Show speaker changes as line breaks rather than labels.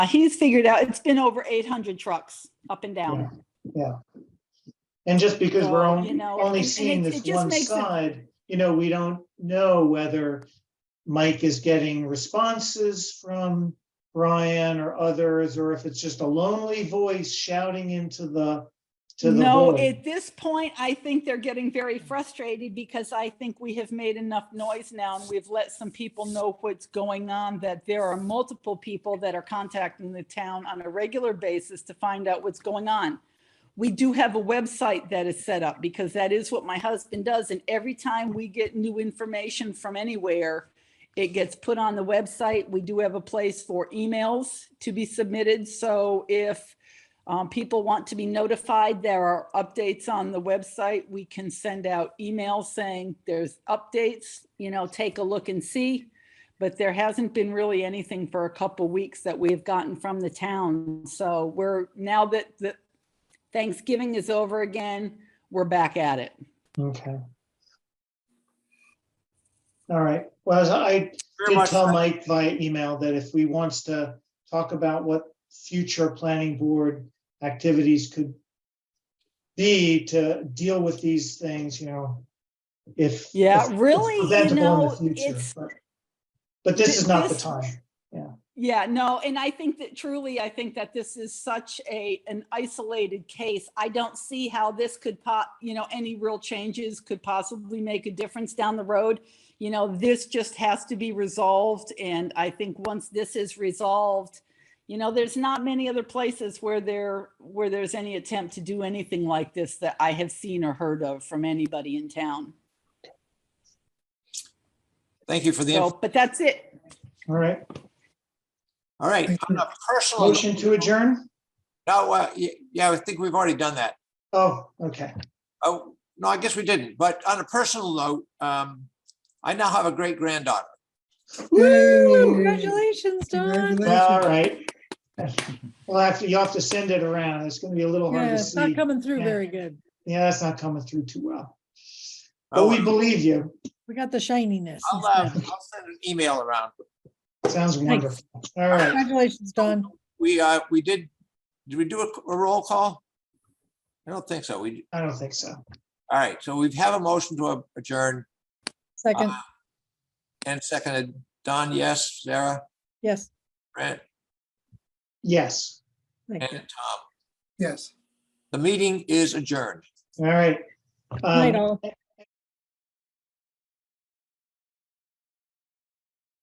Uh, He's figured out, it's been over 800 trucks up and
Yeah.
down.
And just because we're
So,
only,
you know,
only
and-
seeing
and it-
this
it just
one
makes it-
side, you know, we don't know whether Mike is getting responses from Brian or others, or if it's just a lonely voice shouting into the, to the
No,
void.
at this point, I think they're getting very frustrated because I think we have made enough noise now and we've let some people know what's going on, that there are multiple people that are contacting the town on a regular basis to find out what's going on. We do have a website that is set up because that is what my husband does. And every time we get new information from anywhere, it gets put on the website. We do have a place for emails to be submitted. So if um, people want to be notified, there are updates on the website. We can send out emails saying there's updates, you know, take a look and see. But there hasn't been really anything for a couple weeks that we've gotten from the town. So we're, now that the Thanksgiving is over again, we're back at it.
Okay. All right. Well, as I
Very
did
much.
tell Mike via email that if we wants to talk about what future planning board activities could be to deal with these things, you know, if.
Yeah,
if it's
really, you
preventable in the
know,
future,
it's-
but- But this is not the
This-
time.
Yeah, no, and I think that truly, I think that this is such a, an isolated case. I don't see how this could pop, you know, any real changes could possibly make a difference down the road. You know, this just has to be resolved, and I think once this is resolved, you know, there's not many other places where there, where there's any attempt to do anything like this that I have seen or heard of from anybody in town.
Thank you for the, info.
So, but that's it.
All right.
all right. On a
Oh.
personal.
Motion to adjourn?
No, uh, y- yeah, I think we've already done that.
Oh, okay.
Oh, no, I guess we didn't. But on a personal note, um, I now have a great granddaughter.
Yay.
Woo! Congratulations, Don.
Congratulations.
All right. Well, after, you'll have to send it around. It's going to be a little hard
Yeah,
to
it's not
see.
coming through
Yeah.
very good.
Yeah, it's not coming through too well. But
Oh,
we believe you.
We got the shininess.
I'll, uh, I'll send an email around.
Sounds wonderful. All right.
Congratulations, Don.
We, uh, we did, did we do a, a roll call? I don't think so. We,
I don't think so.
all right. So we have a motion to adjourn
Uh,
Second,
and seconded. Don, yes, Sarah,
yes.
Brent,
Yes. uh,
and
Thank you.
Tom.
Yes.
The meeting is adjourned.
All right.
Night,
Um,
all.